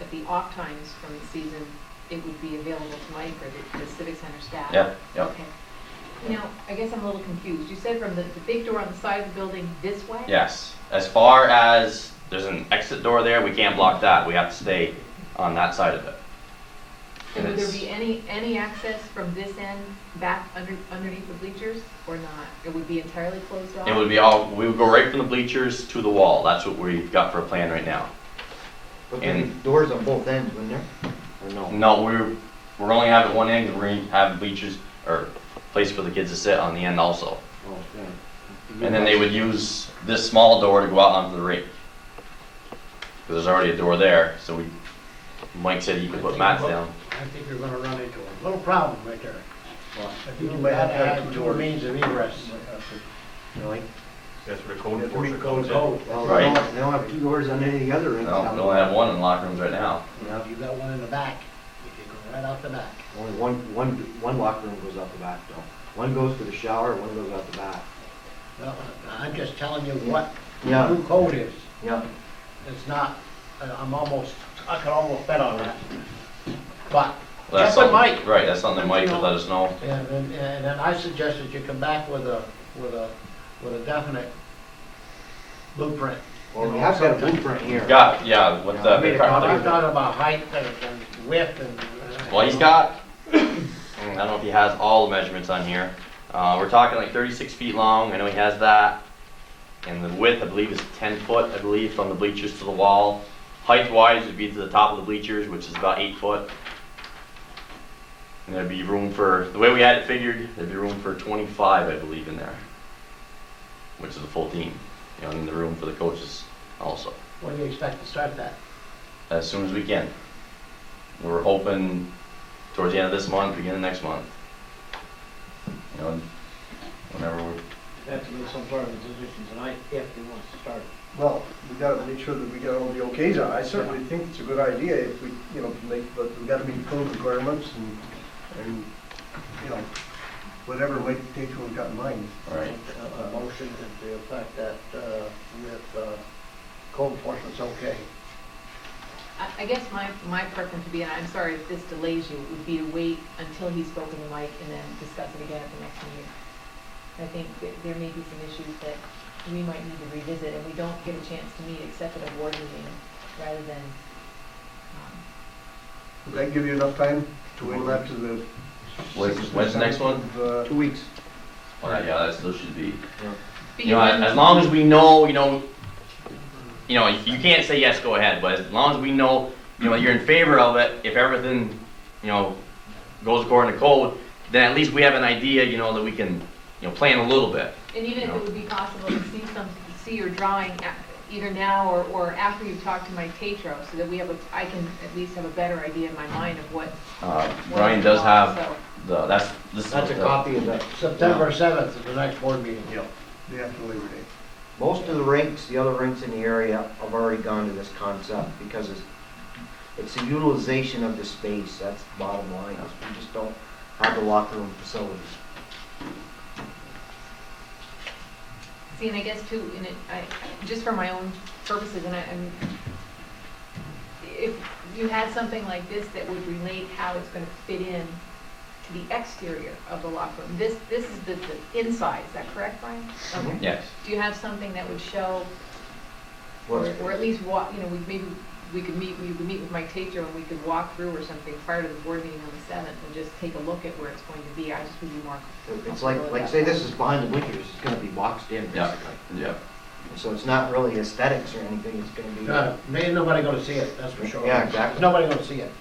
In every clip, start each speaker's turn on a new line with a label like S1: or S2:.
S1: at the off times from the season, it would be available to Mike or the- the Civic Center staff?
S2: Yeah, yeah,
S1: Okay. Now, I guess I'm a little confused. You said from the, the big door on the side of the building this way?
S2: yes. As far as, there's an exit door there, we can't block that, we have to stay on that side of it.
S1: And would there
S2: Yes.
S1: be any, any access from this end back under, underneath the bleachers or not? It would be entirely closed off?
S2: It would be all, we would go right from the bleachers to the wall, that's what we've got for a plan right now.
S3: But there'd be
S2: And-
S3: doors on both ends, wouldn't there? Or no?
S2: No, we're, we're only having one end, and we're gonna have bleachers, or place for the kids to sit on the end also.
S3: Oh, Okay.
S2: And then they would use this small door to go out onto the rink. 'Cause there's already a door there, so we, Mike said he could put mats down.
S4: I think you're gonna run into a little problem right there.
S3: Well,
S4: I
S3: think you might have to have two doors.
S4: means of egress.
S3: Really?
S5: That's where the code
S4: If we
S5: enforcement
S4: go
S5: comes in.
S6: Oh,
S4: code.
S3: Well,
S2: Right.
S3: they don't, they don't have two doors on any of the other ends.
S2: No, we only have one in the locker rooms right now.
S4: You know, you got one in the back, you can go right out the back.
S3: Only one, one, one locker room goes out the back though. One goes to the shower, one goes out the back.
S4: Well, I'm just telling you what
S3: Yeah.
S4: new code is.
S3: Yeah.
S4: It's not, I- I'm almost, I could almost bet on that. But,
S2: Well, That's
S4: Check
S2: something,
S4: with Mike.
S2: Right, that's something Mike would let us know.
S4: and, and and then I suggest that you come back with a, with a, with a definite blueprint.
S3: Well, we have got a blueprint here.
S2: Got, yeah, with the.
S3: I made a
S4: Now, I'm
S3: copy.
S2: the-
S4: talking about height and and uh, width and.
S2: Well, he's got, I don't know if he has all the measurements on here. Uh, we're talking like thirty-six feet long, I know he has that. And the width, I believe, is ten foot, I believe, from the bleachers to the wall. Height wise would be to the top of the bleachers, which is about eight foot. And there'd be room for, the way we had it figured, there'd be room for twenty-five, I believe, in there. Which is a full team, you know, and the room for the coaches also,
S4: When do you expect to start that?
S2: as soon as we can. We're hoping towards the end of this month, beginning of next month. You know, whenever we're,
S4: Have to make some sort of decision tonight if he wants to start it.
S6: Well, we gotta make sure that we got all the okays on. I certainly think it's a good idea if we, you know, make, but we gotta meet code requirements and, and, you know, whatever Mike takes what we've got in mind.
S2: all right.
S4: A a motion to the effect that uh, with uh, code enforcement's okay.
S1: I, I guess my, my preference would be, and I'm sorry if this delays you, would be to wait until he's spoken to Mike and then discuss it again at the next meeting. I think that there may be some issues that we might need to revisit and we don't get a chance to meet except at a board meeting rather than, um,
S6: Would that give you enough time to wait till after the?
S2: When's-
S6: sixth or
S2: when's the next one?
S6: seventh of, uh,
S3: Two weeks.
S2: Well, yeah, that still should be.
S1: but
S2: You know,
S1: you-
S2: as long as we know, you know, you know, you can't say yes, go ahead, but as long as we know, you know, you're in favor of it, if everything, you know, goes according to code, then at least we have an idea, you know, that we can, you know, plan a little bit.
S1: And even if it would be possible to see some, see your drawing a- either now or, or after you've talked to Mike Tatro, so that we have a, I can at least have a better idea in my mind of what.
S2: Uh,
S1: what
S2: Brian
S1: it
S2: does
S1: was,
S2: have
S1: so-
S2: the, that's, this is.
S3: That's a
S2: the-
S3: copy of that.
S4: September 7th is the next board meeting.
S6: Yeah, the after Labor Day.
S3: Most of the rinks, the other rinks in the area have already gone to this concept because it's, it's the utilization of the space, that's the bottom line. is We just don't have the locker room facilities.
S1: See, and I guess too, in it, I, just for my own purposes, and I, and if you had something like this that would relate how it's gonna fit in to the exterior of the locker room, this, this is the, the inside, is that correct, Brian? Okay.
S2: Yes.
S1: Do you have something that would show Or,
S3: Well,
S1: or at least walk, you know, we, maybe, we could meet, we could meet with Mike Tatro and we could walk through or something prior to the board meeting on the seventh and just take a look at where it's going to be, I just would be more.
S3: It's like, like say this is behind the bleachers, it's gonna be boxed in
S2: Yeah.
S3: basically.
S2: Yeah.
S3: So it's not really aesthetics or anything, it's gonna be.
S4: No, Ain't Uh, nobody gonna see it, that's for sure.
S3: Yeah, exactly.
S4: Nobody gonna see it.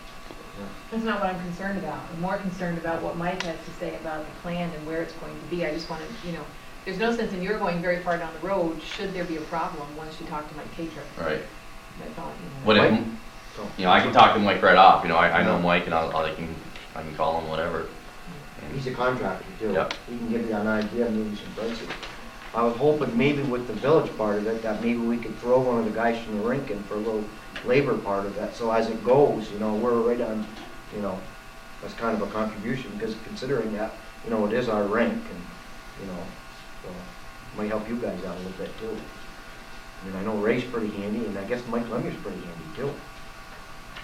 S1: That's not what I'm concerned about, I'm more concerned about what Mike has to say about the plan and where it's going to be, I just wanna, you know, there's no sense in your going very far down the road, should there be a problem, once you talk to Mike Tatro,
S2: Right.
S1: that's all, you know.
S2: What if,
S3: Mike?
S2: you know, I can talk to Mike right off, you know, I, I know Mike and I'll, I can, I can call him, whatever.
S3: He's a contractor too.
S2: Yeah.
S3: He can give you an idea, maybe some prices. I was hoping maybe with the village part of it, that maybe we could throw one of the guys from the rink in for a little labor part of that. So as it goes, you know, we're right on, you know, that's kind of a contribution, because considering that, you know, it is our rink and, you know, so might help you guys out a little bit too. I mean, I know Ray's pretty handy and I guess Mike Lemmy's pretty handy too.